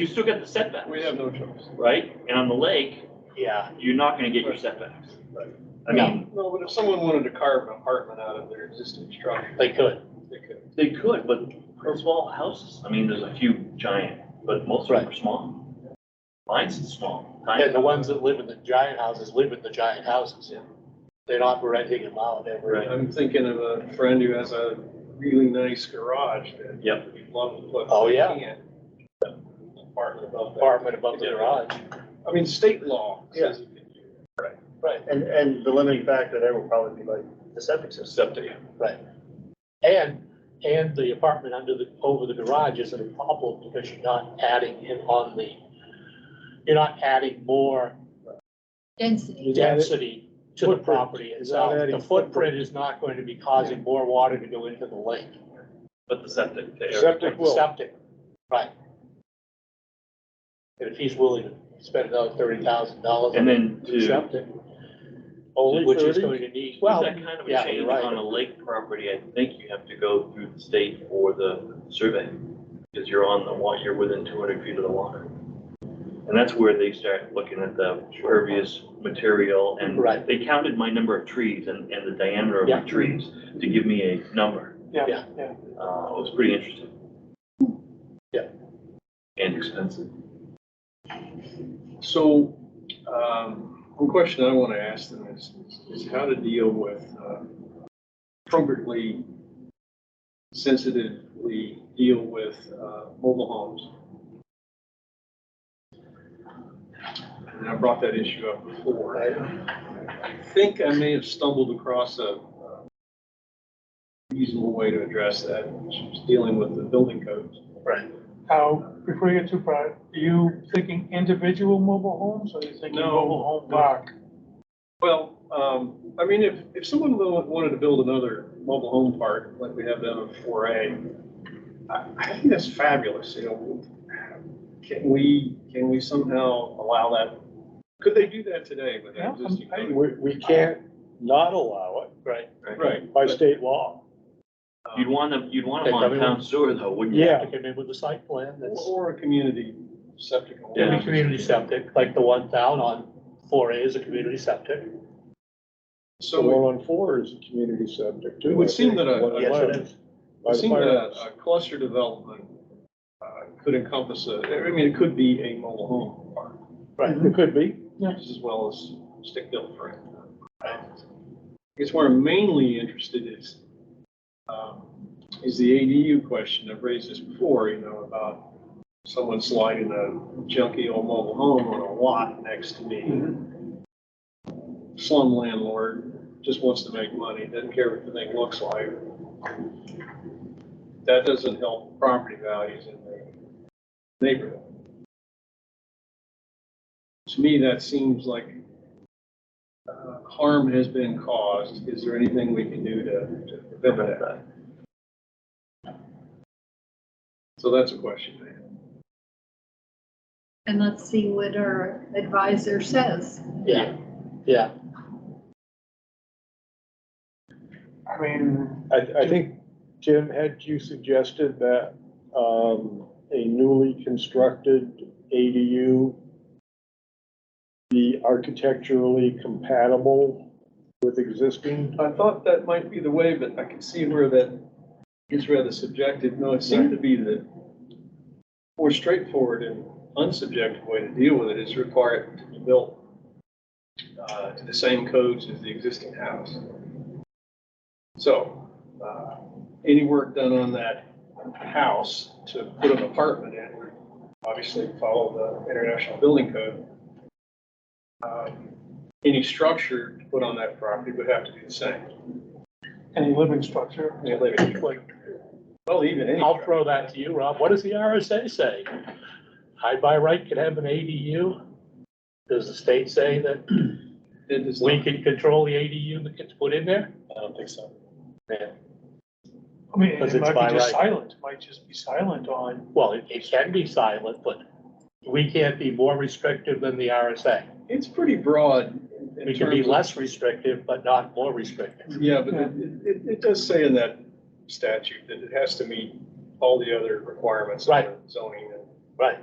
you still got the setbacks, We have no choice. right? And on the lake, Yeah, you're not gonna get your setbacks. Right. I mean, No, but if someone wanted to carve an apartment out of their existing structure, they could. they could. they could, but they're small houses, I mean, there's a few giant, but most of them are small. Mine's small. tiny. And the ones that live in the giant houses live in the giant houses. They're not renting them out ever. Right. I'm thinking of a friend who has a really nice garage that. Yep. he'd Love to put. Oh, yeah. in. Apartment above that. Apartment above the garage. I mean, state law says you can do Right, And, and the limiting factor there will probably be like the septic system. Septic, right. And, and the apartment under the, over the garage isn't a problem because you're not adding in on the, you're not adding more density. density to the Footprint. property itself. adding The footprint is not going to be causing more water to go into the lake. but the septic there. Septic will. Septic, right. And if he's willing to spend another thirty thousand dollars. And then to, Septic. Only Which is 30? going to need, Well, well, that kind of a yeah, you're change right. on a lake property, I think you have to go through the state or the survey. Because you're on the wa, you're within two hundred feet of the water. And that's where they start looking at the pervious material and Right. they counted my number of trees and, and the diameter of my Yeah. trees to give me a number. Yeah, Yeah. yeah. Uh, it was pretty interesting. Yeah. And expensive. So, um, one question I want to ask them is, is how to deal with, uh, appropriately, sensitively deal with, uh, mobile homes. And I brought that issue up before. I think I may have stumbled across a uh, reasonable way to address that, which is dealing with the building codes. Now, before you get too far, are you thinking individual mobile homes or are you thinking No, mobile home no. park? Well, um, I mean, if, if someone wa- wanted to build another mobile home park, like we have down in four A, I, I think that's fabulous, you know. Can we, can we somehow allow that? Could they do that today with Yeah, that I'm- existing? I- code? We, we can't not allow right, Right. it by but, state law. You'd um, want them, you'd want They them on probably town wouldn't. sewer though, wouldn't you? you Yeah. have to come in with a site plan that's, Or a community septic. and Yeah. a water. community septic, like the one down on four A is a community septic. The So it- one on four is a community septic too. It would I seem think. that a- One on Yes, one it is. by it the seemed that uh, firehouse. a cluster development uh, could encompass a, I mean, it could be a mobile home park. Right. It could be. just as well as stick built for it. I guess where I'm mainly interested is, um, is the ADU question. I've raised this before, you know, about someone sliding a junky old mobile home on a lot next to me. Slum landlord, just wants to make money, doesn't care what the thing looks like. That doesn't help property values in the neighborhood to me, that seems like uh, harm has been caused. Is there anything we can do to to prevent that? So that's a question, man. And let's see what our advisor says. Yeah, yeah, I mean, I, I think, Tim, had you suggested that, um, a newly constructed ADU be architecturally compatible with existing? I thought that might be the way, but I can see where that is rather subjective. No, it seemed to be the more straightforward and unsubjective way to deal with it is require it to be built uh, to the same codes as the existing house. So, uh, any work done on that house to put an apartment in, would obviously follow the International Building Code. Um, Any structure to put on that property would have to be the same. any living structure. Any living structure. Well, even any. I'll throw that to you, Rob, what does the RSA say? I by right could have an ADU? Does the state say that It is we can control the ADU that gets put in there? I don't think so. I mean, Because it it's might by be just right. silent, it might just be silent on, Well, it, it can be silent, but we can't be more restrictive than the RSA. It's pretty broad. in We can be terms of- less restrictive, but not more restrictive. Yeah, but it, it, it does say in that statute that it has to meet all the other requirements. of Right. Zoning and Right.